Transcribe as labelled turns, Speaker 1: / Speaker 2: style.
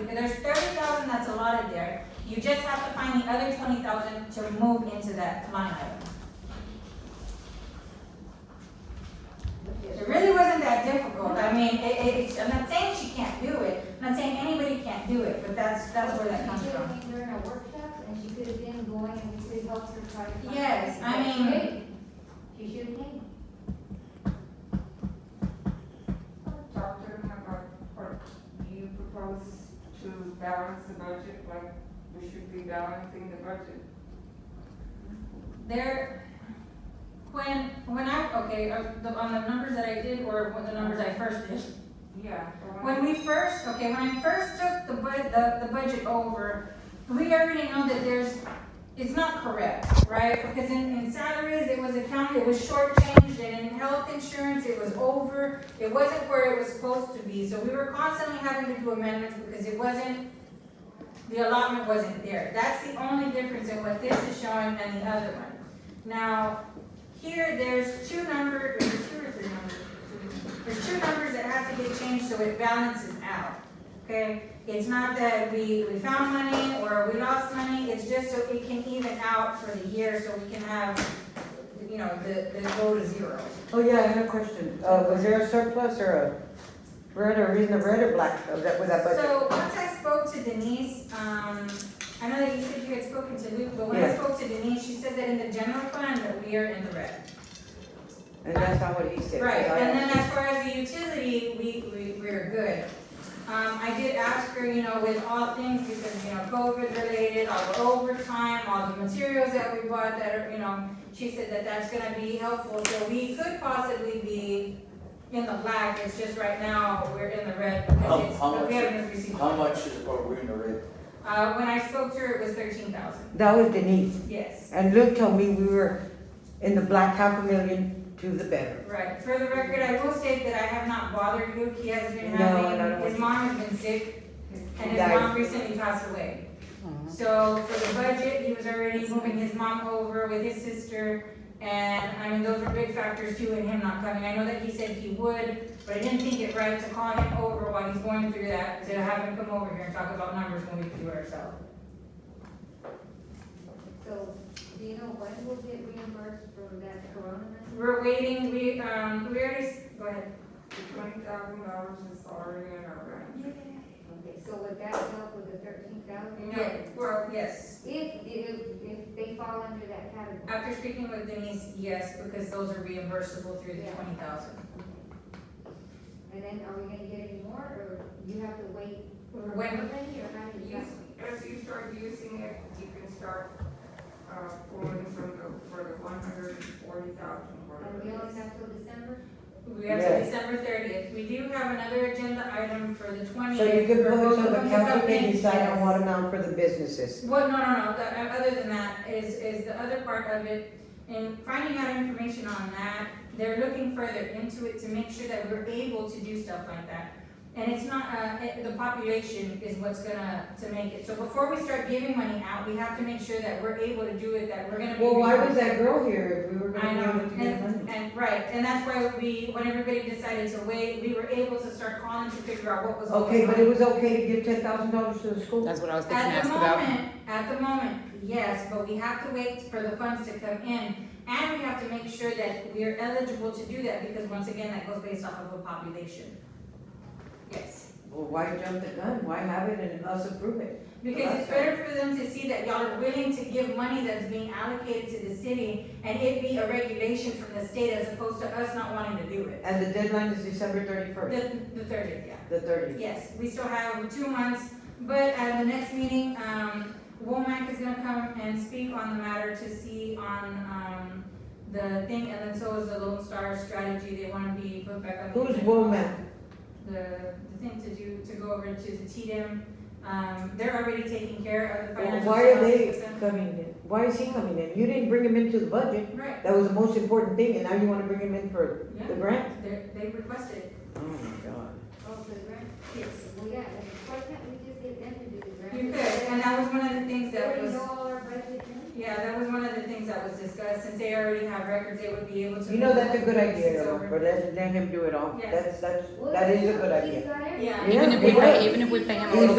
Speaker 1: because there's thirty thousand that's allotted there. You just have to find the other twenty thousand to move into that line item. It really wasn't that difficult, I mean, it, it, it's- I'm not saying she can't do it, I'm not saying anybody can't do it, but that's, that's where that comes from.
Speaker 2: She could have been during a workshop, and she could have been going and we could have helped her try to. find-
Speaker 1: Yes, I mean-
Speaker 2: She should have came.
Speaker 3: Dr. Hammer, or do you propose to balance the budget like we should be balancing the budget?
Speaker 1: There, when, when I, okay, uh, the- on the numbers that I did, or what the numbers I first did,
Speaker 3: Yeah. the
Speaker 1: When
Speaker 3: one-
Speaker 1: we first, okay, when I first took the bud, the, the budget over, we already know that there's, it's not correct, right? Because in, in salaries, it was accounted, it was shortchanged, and in health insurance, it was over, it wasn't where it was supposed to be, so we were constantly having to do amendments because it wasn't, the allotment wasn't there. That's the only difference in what this is showing and the other one. Now, here, there's two numbers, or two or three numbers, there's two numbers that have to get changed so it balances out, okay? It's not that we, we found money or we lost money, it's just so it can even out for the year so we can have, you know, the, the go to zero.
Speaker 4: Oh, yeah, I have a question. Uh, was there a surplus or a red or reason of red or black of that, with that budget?
Speaker 1: So once I spoke to Denise, um, I know that you said you had spoken to Luke, but when I
Speaker 4: Yeah.
Speaker 1: spoke to Denise, she said that in the general fund that we are in the red.
Speaker 4: And that's not what he said.
Speaker 1: Right,
Speaker 4: I-
Speaker 1: and then as far as the utility, we, we, we're good. Um, I did ask her, you know, with all things, because, you know, COVID related, all the overtime, all the materials that we bought that are, you know, she said that that's gonna be helpful, so we could possibly be in the black, it's just right now, we're in the red,
Speaker 5: How-
Speaker 1: because it's,
Speaker 5: how
Speaker 1: but we
Speaker 5: much-
Speaker 1: haven't received.
Speaker 5: How much is, are we in the red?
Speaker 1: Uh, when I spoke to her, it was thirteen thousand,
Speaker 4: That was Denise.
Speaker 1: yes,
Speaker 4: And Luke told me we were in the black half a million to the better.
Speaker 1: right, for the record, I will state that I have not bothered Luke, he has been
Speaker 4: No, I don't
Speaker 1: having,
Speaker 4: know.
Speaker 1: his mom has been sick And his
Speaker 4: Died.
Speaker 1: mom recently passed away. So for the budget, he was already moving his mom over with his sister. And I mean, those were big factors too in him not coming. I know that he said he would, but I didn't think it right to call him over while he's going through that, to have him come over here and talk about numbers when we could do it ourselves.
Speaker 2: So, do you know when we'll get reimbursed for that corona? money?
Speaker 1: We're waiting, we, um, we already, s- go ahead.
Speaker 3: The twenty thousand dollars is already in our budget.
Speaker 2: Okay, so would that help with the thirteen thousand?
Speaker 1: No, well, yes.
Speaker 2: If, if, if they fall under that category.
Speaker 1: After speaking with Denise, yes, because those are reimbursable through the
Speaker 2: Yeah.
Speaker 1: twenty thousand.
Speaker 2: And then are we gonna get any more, or you have to wait for
Speaker 1: When-
Speaker 2: money, or how do you?
Speaker 3: Use, as you start using it, you can start, uh, pulling from the, for the one hundred and forty thousand.
Speaker 2: And we only have till December?
Speaker 1: We have to
Speaker 4: Yes.
Speaker 1: December thirtieth. We do have another agenda item for the twentieth.
Speaker 4: So you give vote to the council can decide on what amount for the businesses.
Speaker 1: Well, no, no, no, the, uh, other than that, is, is the other part of it, and finding out information on that, they're looking further into it to make sure that we're able to do stuff like that. And it's not, uh, it- the population is what's gonna, to make it, so before we start giving money out, we have to make sure that we're able to do it, that we're gonna be.
Speaker 4: Well, why was that girl here if we were
Speaker 1: I
Speaker 4: gonna
Speaker 1: know,
Speaker 4: be able to get money?
Speaker 1: and, and, right, and that's why we, when everybody decided to wait, we were able to start calling to figure out what was going on.
Speaker 4: Okay, but it was okay to give ten thousand dollars to the school?
Speaker 6: That's what I was thinking,
Speaker 1: At
Speaker 6: ask
Speaker 1: the
Speaker 6: about.
Speaker 1: moment, at the moment, yes, but we have to wait for the funds to come in, and we have to make sure that we are eligible to do that, because once again, that goes based off of a population. Yes,
Speaker 4: Well, why jump the gun? Why have it and us approve it?
Speaker 1: because it's better for them to see that y'all are willing to give money that's being allocated to the city, and it be a regulation from the state as opposed to us not wanting to do it.
Speaker 4: And the deadline is December thirty-first,
Speaker 1: The, the thirtieth, yeah.
Speaker 4: the thirtieth.
Speaker 1: Yes, we still have two months, but at the next meeting, um, Womack is gonna come and speak on the matter to see on, um, the thing, and then so is the Lone Star strategy, they wanna be put back on. the
Speaker 4: Who's
Speaker 1: agenda.
Speaker 4: Womack?
Speaker 1: The, the thing to do, to go over to the TDM, um, they're already taking care of the
Speaker 4: Well,
Speaker 1: financial.
Speaker 4: Why are they
Speaker 1: services and-
Speaker 4: coming in? Why is he coming in? You didn't bring him into the budget.
Speaker 1: Right,
Speaker 4: That was the most important thing, and now you wanna bring him in for the
Speaker 1: yeah,
Speaker 4: grant?
Speaker 1: they, they requested it,
Speaker 4: Oh, my God.
Speaker 2: Oh, for the grant?
Speaker 1: yes.
Speaker 2: Well, yeah, and why can't we just get them to do the grant?
Speaker 1: You could, and that was one of the things
Speaker 2: They
Speaker 1: that
Speaker 2: already
Speaker 1: was.
Speaker 2: know all our budget then?
Speaker 1: Yeah, that was one of the things that was discussed, since they already have records, they would be able to.
Speaker 4: You know, that's a good
Speaker 1: It's
Speaker 4: idea, though,
Speaker 1: over.
Speaker 4: but let, let him do it all.
Speaker 1: Yeah.
Speaker 4: That's, that's,
Speaker 2: Well,
Speaker 4: that is a good
Speaker 2: He's
Speaker 4: idea.
Speaker 2: got everything.
Speaker 1: Yeah.
Speaker 6: Even if we
Speaker 4: Yeah.
Speaker 6: pay, even if we pay him a
Speaker 4: He's
Speaker 6: little